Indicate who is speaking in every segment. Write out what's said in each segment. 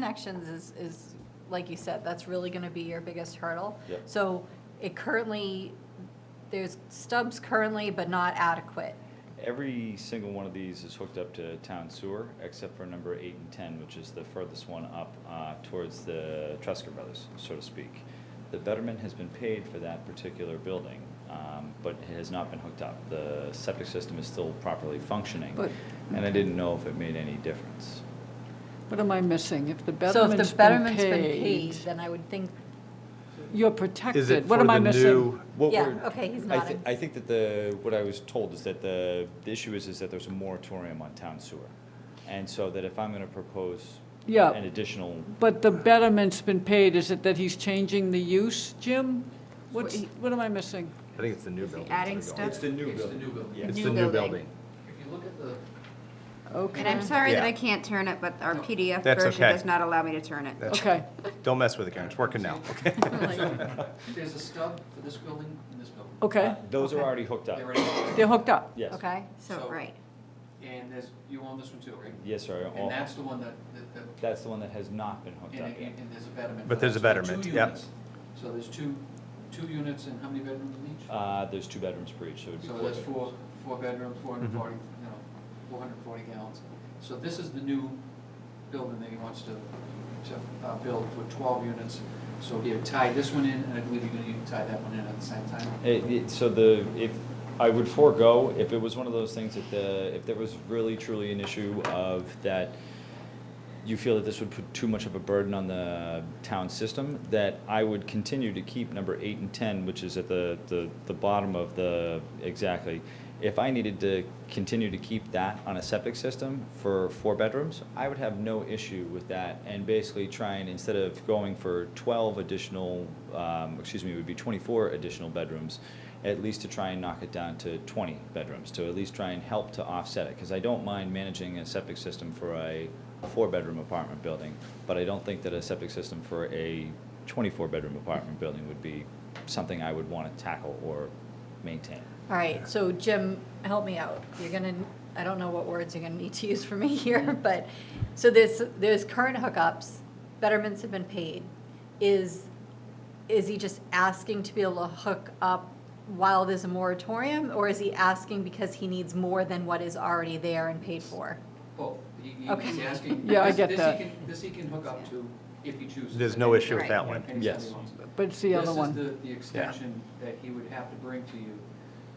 Speaker 1: Connections is, is, like you said, that's really gonna be your biggest hurdle.
Speaker 2: Yep.
Speaker 1: So it currently, there's stubs currently, but not adequate.
Speaker 2: Every single one of these is hooked up to town sewer, except for number eight and ten, which is the furthest one up uh, towards the Tresker Brothers, so to speak. The betterment has been paid for that particular building, um, but it has not been hooked up. The septic system is still properly functioning,
Speaker 3: But-
Speaker 2: and I didn't know if it made any difference.
Speaker 3: What am I missing? If the
Speaker 1: So if
Speaker 3: betterment's
Speaker 1: the
Speaker 3: been
Speaker 1: betterment's been
Speaker 3: paid,
Speaker 1: paid, then I would think,
Speaker 3: you're
Speaker 4: Is it
Speaker 3: protected. What
Speaker 4: for
Speaker 3: am I
Speaker 4: the
Speaker 3: missing?
Speaker 4: new,
Speaker 2: What
Speaker 1: Yeah,
Speaker 2: we're-
Speaker 1: okay, he's
Speaker 2: I thi-
Speaker 1: nodding.
Speaker 2: I think that the, what I was told is that the, the issue is, is that there's a moratorium on town sewer. And so that if I'm gonna propose
Speaker 3: Yeah.
Speaker 2: an additional
Speaker 3: But the betterment's been paid, is it that he's changing the use, Jim? What's, what am I missing?
Speaker 4: I think it's the new building.
Speaker 5: adding
Speaker 4: It's
Speaker 5: stuff? It's
Speaker 2: the new
Speaker 6: It's the new
Speaker 4: the
Speaker 6: building.
Speaker 5: New
Speaker 4: new
Speaker 5: building.
Speaker 4: building.
Speaker 6: If you look at the,
Speaker 5: And
Speaker 3: Okay,
Speaker 5: I'm sorry that I
Speaker 4: Yeah.
Speaker 5: can't turn it, but our PDF
Speaker 4: That's
Speaker 5: version
Speaker 4: okay.
Speaker 5: does not allow me to turn it.
Speaker 4: That's-
Speaker 3: okay.
Speaker 4: Don't mess with it, Karen, it's working now, okay?
Speaker 6: there's a stub for this building and this building.
Speaker 3: Okay,
Speaker 2: Uh, Those are already hooked up.
Speaker 6: They're right.
Speaker 3: they're hooked up.
Speaker 2: Yes.
Speaker 1: okay?
Speaker 5: So,
Speaker 6: So-
Speaker 5: right.
Speaker 6: And there's, you own this one too, right?
Speaker 2: Yes, sir. All-
Speaker 6: And that's the one that, that- that,
Speaker 2: That's the one that has not been hooked up
Speaker 6: and,
Speaker 2: yet.
Speaker 6: and and there's a betterment. for
Speaker 4: But there's
Speaker 6: that.
Speaker 4: a
Speaker 6: So there are
Speaker 4: betterment,
Speaker 6: two
Speaker 4: yep.
Speaker 6: units. So there's two, two units and how many bedrooms in each?
Speaker 2: Uh, there's two bedrooms per each, so it would be
Speaker 6: So
Speaker 2: four
Speaker 6: that's
Speaker 2: bedrooms.
Speaker 6: four, four bedrooms, four
Speaker 4: Mm-hmm.
Speaker 6: hundred and forty, you know, four hundred and forty gallons. So this is the new building that he wants to, to, uh, build for twelve units. So he would tie this one in, and I believe you're gonna need to tie that one in at the same time.
Speaker 2: It- it- so the, if, I would forego, if it was one of those things that the, if there was really truly an issue of that you feel that this would put too much of a burden on the town system, that I would continue to keep number eight and ten, which is at the, the, the bottom of the, exactly. If I needed to continue to keep that on a septic system for four bedrooms, I would have no issue with that and basically try and, instead of going for twelve additional, um, excuse me, it would be twenty-four additional bedrooms, at least to try and knock it down to 20 bedrooms, to at least try and help to offset it. Because I don't mind managing a septic system for a four-bedroom apartment building, but I don't think that a septic system for a 24-bedroom apartment building would be something I would want to tackle or maintain.
Speaker 1: All right, so Jim, help me out. You're gonna, I don't know what words you're gonna need to use for me here, but, so there's, there's current hookups, betterments have been paid. Is, is he just asking to be able to hook up while there's a moratorium? Or is he asking because he needs more than what is already there and paid for?
Speaker 6: Well, he, he- he's
Speaker 1: Okay.
Speaker 6: asking.
Speaker 3: Yeah, I
Speaker 6: this-
Speaker 3: get
Speaker 6: this he
Speaker 3: that.
Speaker 6: can- This he can hook up to if he chooses.
Speaker 4: There's no issue with that
Speaker 5: Right.
Speaker 4: one.
Speaker 6: Anytime he
Speaker 2: Yes.
Speaker 6: wants.
Speaker 3: But it's the other
Speaker 6: This
Speaker 3: one.
Speaker 6: is the, the extension that he would have to bring to you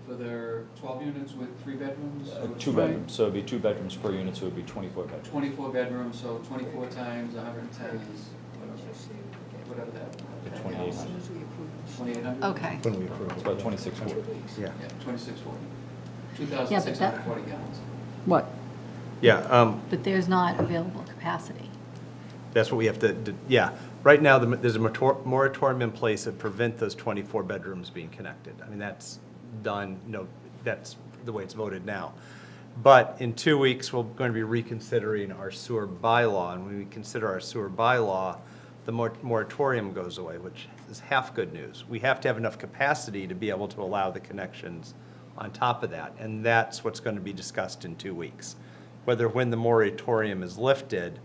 Speaker 6: for their twelve units with three bedrooms.
Speaker 2: Uh,
Speaker 6: so
Speaker 2: Two
Speaker 3: Right.
Speaker 2: bedrooms, so it'd be two bedrooms per unit, so it'd be 24 bedrooms.
Speaker 6: Twenty-four bedrooms, so twenty-four times hundred and ten is whatever, whatever
Speaker 2: The
Speaker 6: that.
Speaker 2: 2,800.
Speaker 6: Twenty-eight hundred?
Speaker 1: Okay.
Speaker 4: When we approve.
Speaker 2: It's about 26 foot.
Speaker 4: Yeah,
Speaker 6: Yeah, twenty-six forty. Two thousand six hundred and forty gallons.
Speaker 3: What?
Speaker 4: yeah, um,
Speaker 1: But there's not available capacity.
Speaker 4: that's what we have to, d- yeah. Right now, the- there's a motor- moratorium in place that prevent those 24 bedrooms being connected. I mean, that's done, no, that's the way it's voted now. But in two weeks, we're going to be reconsidering our sewer bylaw, and when we consider our sewer bylaw, the mor- moratorium goes away, which is half good news. We have to have enough capacity to be able to allow the connections on top of that, and that's what's going to be discussed in two weeks. Whether when the moratorium is lifted,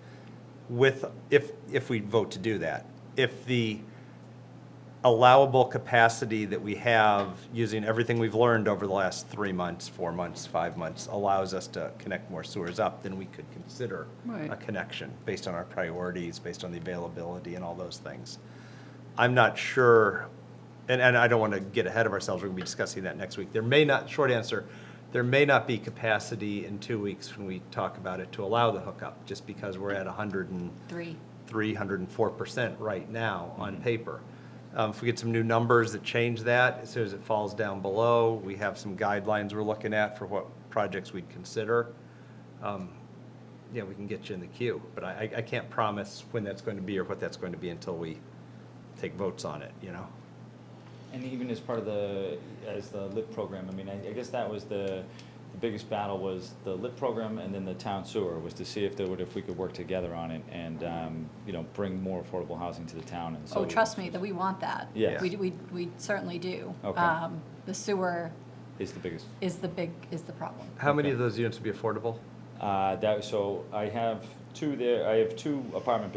Speaker 4: with, if, if we vote to do that, if the allowable capacity that we have, using everything we've learned over the last three months, four months, five months, allows us to connect more sewers up, then we could consider
Speaker 3: Right.
Speaker 4: a connection, based on our priorities, based on the availability and all those things. I'm not sure, and, and I don't want to get ahead of ourselves, we're going to be discussing that next week. There may not, short answer, there may not be capacity in two weeks when we talk about it to allow the hookup, just because we're at 100 and
Speaker 1: Three.
Speaker 4: 304% right now on paper. Um, If we get some new numbers that change that, as soon as it falls down below, we have some guidelines we're looking at for what projects we'd consider. um, Yeah, we can get you in the queue, but I, I- I can't promise when that's going to be or what that's going to be until we take votes on it, you know?
Speaker 2: And even as part of the, as the LIP program, I mean, I, I guess that was the, the biggest battle was the LIP program and then the town sewer, was to see if there would, if we could work together on it and, um, you know, bring more affordable housing to the town and so.
Speaker 1: Oh, trust me, that we want that.
Speaker 2: Yes.
Speaker 1: We, we, we certainly do.
Speaker 2: Okay.
Speaker 1: Um, The sewer
Speaker 2: Is the biggest.
Speaker 1: is the big, is the problem.
Speaker 4: How many
Speaker 2: Okay.
Speaker 4: of those units would be affordable?
Speaker 2: Uh, that, so I have two there, I have two apartment buildings